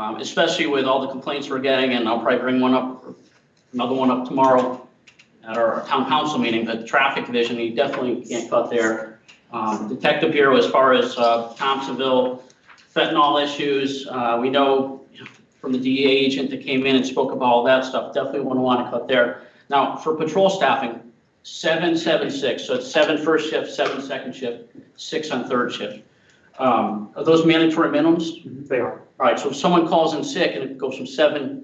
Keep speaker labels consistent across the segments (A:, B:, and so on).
A: Um, especially with all the complaints we're getting, and I'll probably bring one up, another one up tomorrow at our town council meeting, the traffic division, you definitely can't cut there. Um, Detective Bureau, as far as, uh, Thompsonville fentanyl issues, uh, we know from the DEA agent that came in and spoke about all that stuff, definitely wouldn't want to cut there. Now, for patrol staffing, seven, seven, six, so it's seven first shift, seven second shift, six on third shift. Um, are those mandatory minimums?
B: They are.
A: All right, so if someone calls in sick and it goes from seven,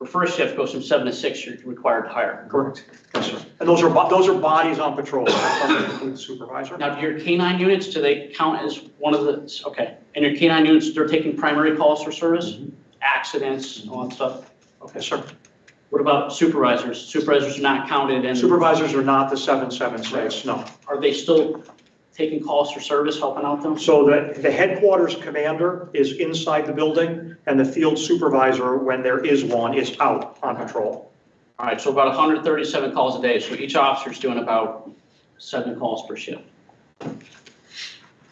A: the first shift goes from seven to six, you're required to hire.
B: Correct. Yes, sir. And those are, bo- those are bodies on patrol, That's something to do with the supervisor.
A: Now, do your canine units, do they count as one of the, okay, and your canine units, they're taking primary calls for service? Accidents, all that stuff?
B: Yes, sir.
A: What about supervisors? Supervisors are not counted and
B: Supervisors are not the seven, seven, six, no.
A: are they still taking calls for service, helping out them?
B: So the, the headquarters commander is inside the building and the field supervisor, when there is one, is out on patrol.
A: All right, so about hundred thirty-seven calls a day, so each officer's doing about seven calls per shift,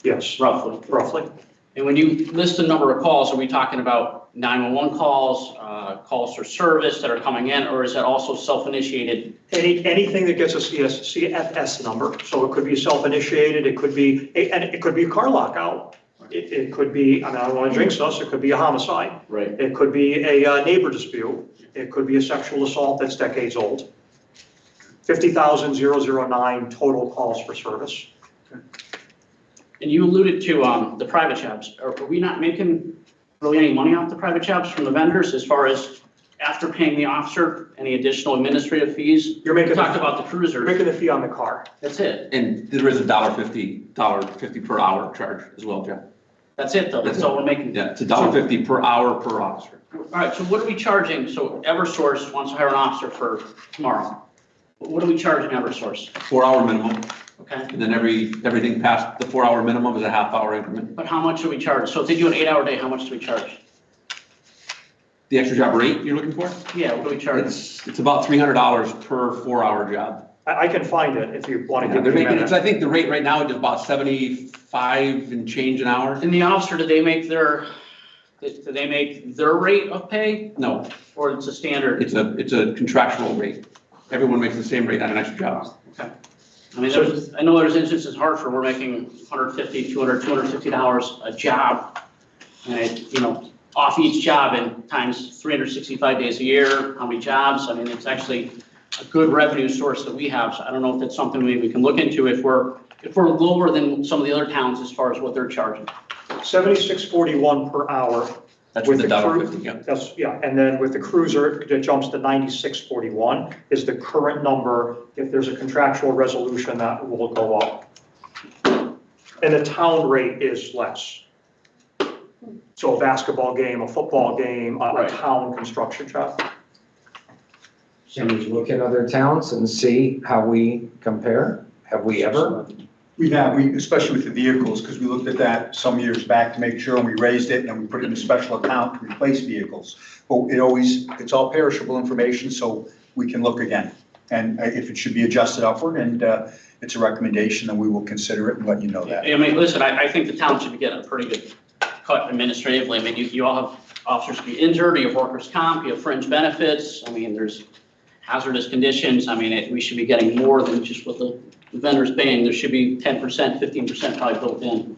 B: Yes,
A: roughly.
B: roughly.
A: And when you list the number of calls, are we talking about 911 calls, uh, calls for service that are coming in, or is that also self-initiated?
B: Any, anything that gets a CS, CFS number, so it could be self-initiated, it could be, and it could be a car lockout. It, it could be, I mean, I don't want to jinx us, it could be a homicide.
A: Right.
B: It could be a uh, neighbor dispute. It could be a sexual assault that's decades old. 50,009 total calls for service.
A: And you alluded to um, the private jobs. Are are we not making really any money off the private jobs from the vendors as far as after paying the officer, any additional administrative fees?
B: You're
A: We
B: making,
A: talked
B: you're
A: about the cruisers.
B: making the fee on the car.
A: That's it.
C: And there is a dollar fifty, dollar fifty per hour charge as well, Jeff.
A: That's it, though. That's all we're making.
C: Yeah, it's a dollar fifty per hour per officer.
A: All right, so what are we charging? So Eversource wants to hire an officer for tomorrow. What are we charging Eversource?
C: Four hour minimum,
A: Okay?
C: and then every, everything past the four hour minimum is a half hour increment.
A: But how much do we charge? So if they do an eight-hour day, how much do we charge?
C: The extra job rate you're looking for?
A: Yeah, what do we charge?
C: It's, it's about three hundred dollars per four hour job.
B: I, I can find it if you want to
C: They're
B: give me a
C: making, it's,
B: minute.
C: I think the rate right now is about seventy-five and change an hour.
A: And the officer, do they make their, do they make their rate of pay
C: No,
A: or it's a standard?
C: it's a, it's a contractual rate. Everyone makes the same rate on an extra job.
A: I mean, there's, I know there's instances in Hartford, we're making 150, 200, 250 dollars a job. And, it, you know, off each job and times 365 days a year, how many jobs? I mean, it's actually a good revenue source that we have. So I don't know if that's something maybe we can look into if we're, if we're lower than some of the other towns as far as what they're charging.
B: 7641 per hour.
C: That's with
B: With
C: the
B: the
C: dollar
B: crew-
C: fifty, yeah.
B: That's, yeah, and then with the cruiser, it jumps to 9641 is the current number. If there's a contractual resolution, that will go up. And the town rate is less. So a basketball game, a football game, a- a
A: Right.
B: town construction job.
D: Can we look at other towns and see how we compare? Have we ever?
E: We have, we, especially with the vehicles, because we looked at that some years back to make sure, and we raised it, and then we put it in a special account to replace vehicles. But it always, it's all perishable information, so we can look again. And uh, if it should be adjusted upward, and uh, it's a recommendation, then we will consider it and let you know that.
A: I mean, listen, I, I think the town should be getting a pretty good cut administratively. I mean, you, you all have officers be injured, you have workers' comp, you have fringe benefits. I mean, there's hazardous conditions. I mean, it- we should be getting more than just what the vendor's paying. There should be ten percent, fifteen percent probably built in.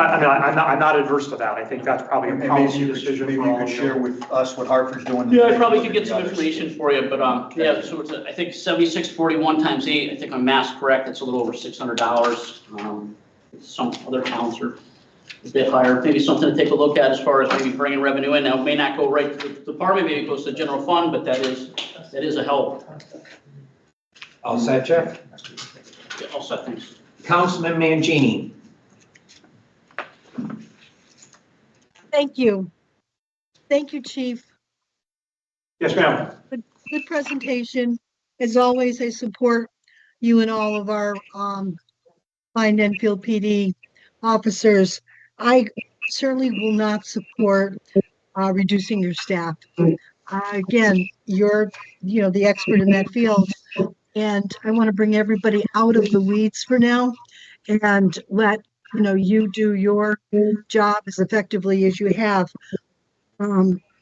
B: I, I mean, I- I'm not, I'm not adverse to that. I think that's probably
E: And
B: a
E: maybe
B: policy
E: you could,
B: decision.
E: maybe
B: for
E: you
B: all
E: could
B: of you.
E: share with us what Hartford's doing.
A: Yeah, I probably could get some
E: Others.
A: information for you, but, um, yeah, so it's, a- I think seventy-six forty-one times eight, I think I'm math correct, it's a little over six hundred dollars. Um, Some other towns are a bit higher, maybe something to take a look at as far as maybe bringing revenue in. Now, it may not go right to the department, maybe it goes to the general fund, but that is, that is a help.
D: All set, Jeff?
A: Yeah, Also, thanks.
D: Councilman Mangini?
F: Thank you. Thank you, Chief.
B: Yes, ma'am.
F: Good presentation. As always, I support you and all of our um fine Enfield PD officers. I certainly will not support uh reducing your staff. Uh, Again, you're, you know, the expert in that field. And I want to bring everybody out of the weeds for now and let, you know, you do your job as effectively as you have. um,